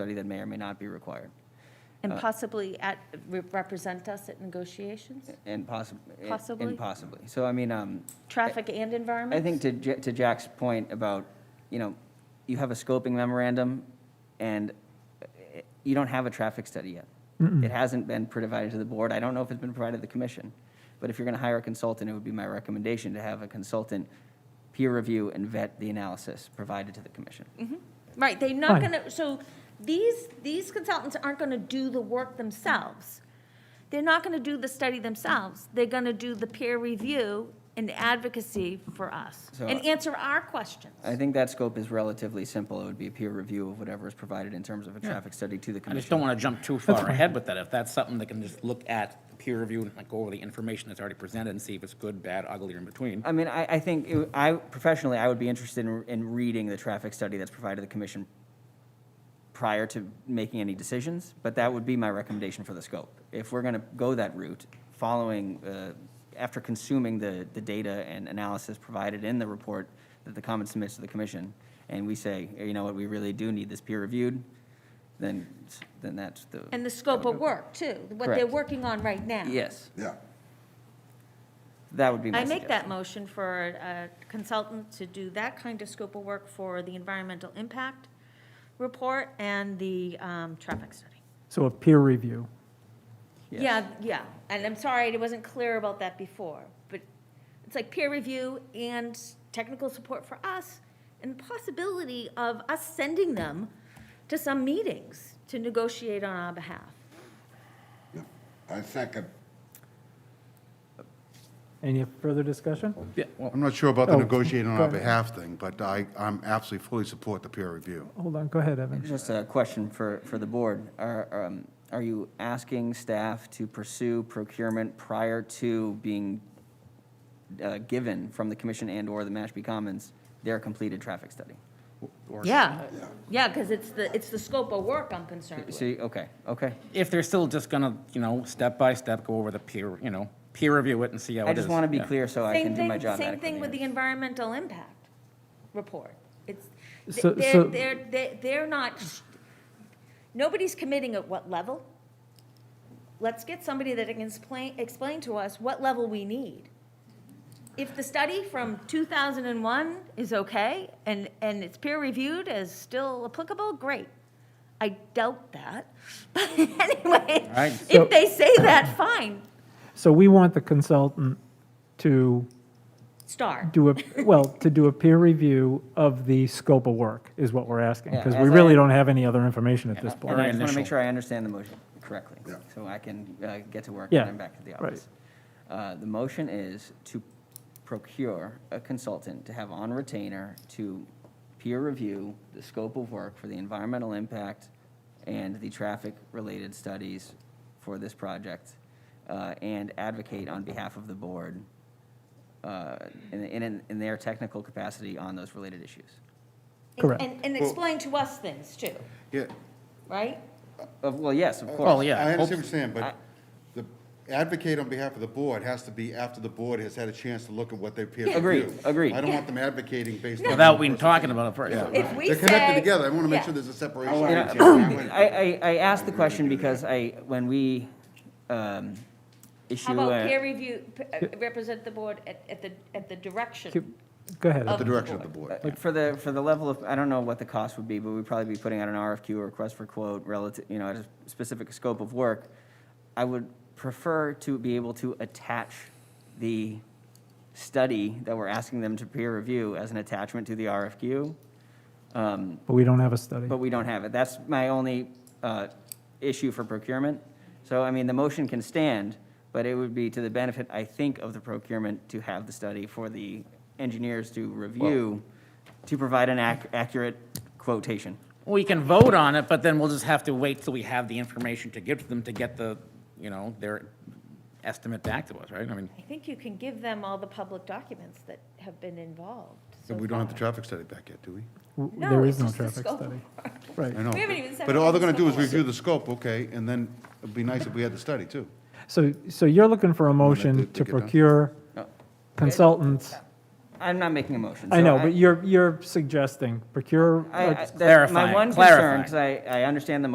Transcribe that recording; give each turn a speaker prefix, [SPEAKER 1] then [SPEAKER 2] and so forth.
[SPEAKER 1] study that may or may not be required, Uh,
[SPEAKER 2] And possibly at, re- represent us at negotiations?
[SPEAKER 1] and possibly.
[SPEAKER 2] Possibly?
[SPEAKER 1] And possibly. So I mean, um,
[SPEAKER 2] Traffic and environment?
[SPEAKER 1] I think to, Ja- to Jack's point about, you know, you have a scoping memorandum, and uh, you don't have a traffic study yet. It hasn't been provided to the board. I don't know if it's been provided to the commission. But if you're going to hire a consultant, it would be my recommendation to have a consultant peer review and vet the analysis provided to the commission.
[SPEAKER 2] Right, they're not
[SPEAKER 3] Fine.
[SPEAKER 2] gonna, so these, these consultants aren't gonna do the work themselves. They're not gonna do the study themselves. They're gonna do the peer review and advocacy for us
[SPEAKER 1] So-
[SPEAKER 2] and answer our questions.
[SPEAKER 1] I think that scope is relatively simple. It would be a peer review of whatever is provided in terms of a traffic study to the
[SPEAKER 4] I
[SPEAKER 1] commission.
[SPEAKER 4] just don't want to jump too far ahead with that. If that's something that can just look at peer review and like go over the information that's already presented and see if it's good, bad, ugly, or in between.
[SPEAKER 1] I mean, I, I think, it- I, professionally, I would be interested in, in reading the traffic study that's provided to the commission prior to making any decisions, but that would be my recommendation for the scope. If we're gonna go that route, following, uh, after consuming the, the data and analysis provided in the report that the comment submits to the commission, and we say, you know what, we really do need this peer reviewed, then, then that's the.
[SPEAKER 2] And the scope of work too, what they're
[SPEAKER 1] Correct.
[SPEAKER 2] working on right now.
[SPEAKER 1] Yes,
[SPEAKER 5] Yeah.
[SPEAKER 1] that would be my
[SPEAKER 2] I make that
[SPEAKER 1] suggestion.
[SPEAKER 2] motion for a consultant to do that kind of scope of work for the environmental impact report and the um, traffic study.
[SPEAKER 3] So a peer review.
[SPEAKER 1] Yes.
[SPEAKER 2] Yeah, yeah, and I'm sorry, I wasn't clear about that before, but it's like peer review and technical support for us and possibility of us sending them to some meetings to negotiate on our behalf.
[SPEAKER 5] yeah. I second.
[SPEAKER 3] Any further discussion?
[SPEAKER 4] Yeah, well,
[SPEAKER 6] I'm not sure about the
[SPEAKER 3] Oh,
[SPEAKER 6] negotiating on
[SPEAKER 3] go
[SPEAKER 6] our
[SPEAKER 3] ahead.
[SPEAKER 6] behalf thing, but I, I'm absolutely fully support the peer review.
[SPEAKER 3] Hold on, go ahead, Evan.
[SPEAKER 1] Just a question for, for the board. Are, um, are you asking staff to pursue procurement prior to being uh, given from the commission and/or the Mashpee Commons their completed traffic study?
[SPEAKER 2] Yeah, yeah, because it's the, it's the scope of work I'm concerned with.
[SPEAKER 1] See, okay, okay.
[SPEAKER 4] if they're still just gonna, you know, step by step, go over the peer, you know, peer review it and see how it is.
[SPEAKER 1] I just want to be
[SPEAKER 4] Yeah.
[SPEAKER 1] clear so I
[SPEAKER 2] Same
[SPEAKER 1] can do
[SPEAKER 2] thing-
[SPEAKER 1] my job
[SPEAKER 2] Same thing with the
[SPEAKER 1] adequately.
[SPEAKER 2] environmental impact report. It's,
[SPEAKER 3] So-
[SPEAKER 2] th- they're,
[SPEAKER 3] so-
[SPEAKER 2] they're, they're- they're not, nobody's committing at what level. Let's get somebody that can explain, explain to us what level we need. If the study from 2001 is okay and, and it's peer-reviewed as still applicable, great. I doubt that. But anyway,
[SPEAKER 4] right.
[SPEAKER 3] So-
[SPEAKER 2] if they say that, fine,
[SPEAKER 3] So we want the consultant to
[SPEAKER 2] start.
[SPEAKER 3] do a, well, to do a peer review of the scope of work is what we're asking,
[SPEAKER 1] Yeah,
[SPEAKER 3] because
[SPEAKER 1] as
[SPEAKER 3] we
[SPEAKER 1] I-
[SPEAKER 3] really don't have any other information at this
[SPEAKER 1] And
[SPEAKER 3] point.
[SPEAKER 1] I just want to
[SPEAKER 4] initial.
[SPEAKER 1] make sure I understand the motion correctly,
[SPEAKER 5] Yeah.
[SPEAKER 1] so I can uh, get to work
[SPEAKER 3] Yeah,
[SPEAKER 1] and then back to the
[SPEAKER 3] right.
[SPEAKER 1] office. Uh, The motion is to procure a consultant to have on retainer to peer review the scope of work for the environmental impact and the traffic-related studies for this project, uh, and advocate on behalf of the board uh, in- in in their technical capacity on those related issues.
[SPEAKER 2] And-
[SPEAKER 3] Correct.
[SPEAKER 2] And, and explain to us things too,
[SPEAKER 6] Yeah,
[SPEAKER 2] right?
[SPEAKER 1] Of- Uh, Well, yes, of course.
[SPEAKER 4] Well, yeah.
[SPEAKER 6] I understand
[SPEAKER 4] hope-
[SPEAKER 6] what you're saying,
[SPEAKER 1] I-
[SPEAKER 6] but the advocate on behalf of the board has to be after the board has had a chance to look at what their peer review.
[SPEAKER 1] Agreed, agreed.
[SPEAKER 6] I don't want them advocating based on.
[SPEAKER 4] Without
[SPEAKER 6] one
[SPEAKER 4] we
[SPEAKER 6] person's
[SPEAKER 4] talking about it first.
[SPEAKER 6] opinion.
[SPEAKER 2] If we
[SPEAKER 6] They're connected
[SPEAKER 2] say-
[SPEAKER 6] together, I want to make
[SPEAKER 2] yeah.
[SPEAKER 6] sure there's a
[SPEAKER 1] You
[SPEAKER 6] separation.
[SPEAKER 1] know, I, I, I asked the question because I, when we um,
[SPEAKER 2] How
[SPEAKER 1] issue,
[SPEAKER 2] about peer
[SPEAKER 1] a-
[SPEAKER 2] review, p- uh, represent the board at, at the, at the direction?
[SPEAKER 3] Keep- Go ahead,
[SPEAKER 2] Of
[SPEAKER 6] The
[SPEAKER 3] Evan.
[SPEAKER 6] direction of the board.
[SPEAKER 1] like, uh, for the, for the level of, I don't know what the cost would be, but we'd probably be putting out an RFQ or request for quote relative, you know, at a specific scope of work. I would prefer to be able to attach the study that we're asking them to peer review as an attachment to the RFQ. Um,
[SPEAKER 3] but we don't have a study.
[SPEAKER 1] But we don't have it. That's my only uh, issue for procurement. So, I mean, the motion can stand, but it would be to the benefit, I think, of the procurement to have the study for the engineers to review, to provide an ac- accurate quotation.
[SPEAKER 4] We can vote on it, but then we'll just have to wait till we have the information to give to them to get the, you know, their estimate back to us, right? I mean,
[SPEAKER 2] I think you can give them all the public documents that have been involved so
[SPEAKER 6] We don't have the
[SPEAKER 2] far.
[SPEAKER 6] traffic study back yet, do we?
[SPEAKER 3] W-
[SPEAKER 2] No,
[SPEAKER 3] There
[SPEAKER 2] it's
[SPEAKER 3] is no
[SPEAKER 2] just the
[SPEAKER 3] traffic
[SPEAKER 2] scope.
[SPEAKER 3] study.
[SPEAKER 6] I
[SPEAKER 3] Right.
[SPEAKER 6] know.
[SPEAKER 2] We haven't even said
[SPEAKER 6] But
[SPEAKER 2] what
[SPEAKER 6] all
[SPEAKER 2] the
[SPEAKER 6] they're going to do is
[SPEAKER 2] scope is.
[SPEAKER 6] review the scope, okay, and then it'd be nice if we had the study too.
[SPEAKER 3] So, so you're looking for a
[SPEAKER 6] did-
[SPEAKER 3] motion
[SPEAKER 6] did
[SPEAKER 3] to
[SPEAKER 6] get done.
[SPEAKER 3] procure
[SPEAKER 1] No.
[SPEAKER 3] consultants
[SPEAKER 1] I'm not making a motion.
[SPEAKER 3] I
[SPEAKER 1] so
[SPEAKER 3] know, but you're, you're suggesting procure
[SPEAKER 1] I- I-
[SPEAKER 3] a
[SPEAKER 1] that's My
[SPEAKER 4] Clarifying,
[SPEAKER 1] one concern,
[SPEAKER 4] clarifying.
[SPEAKER 1] because I, I understand the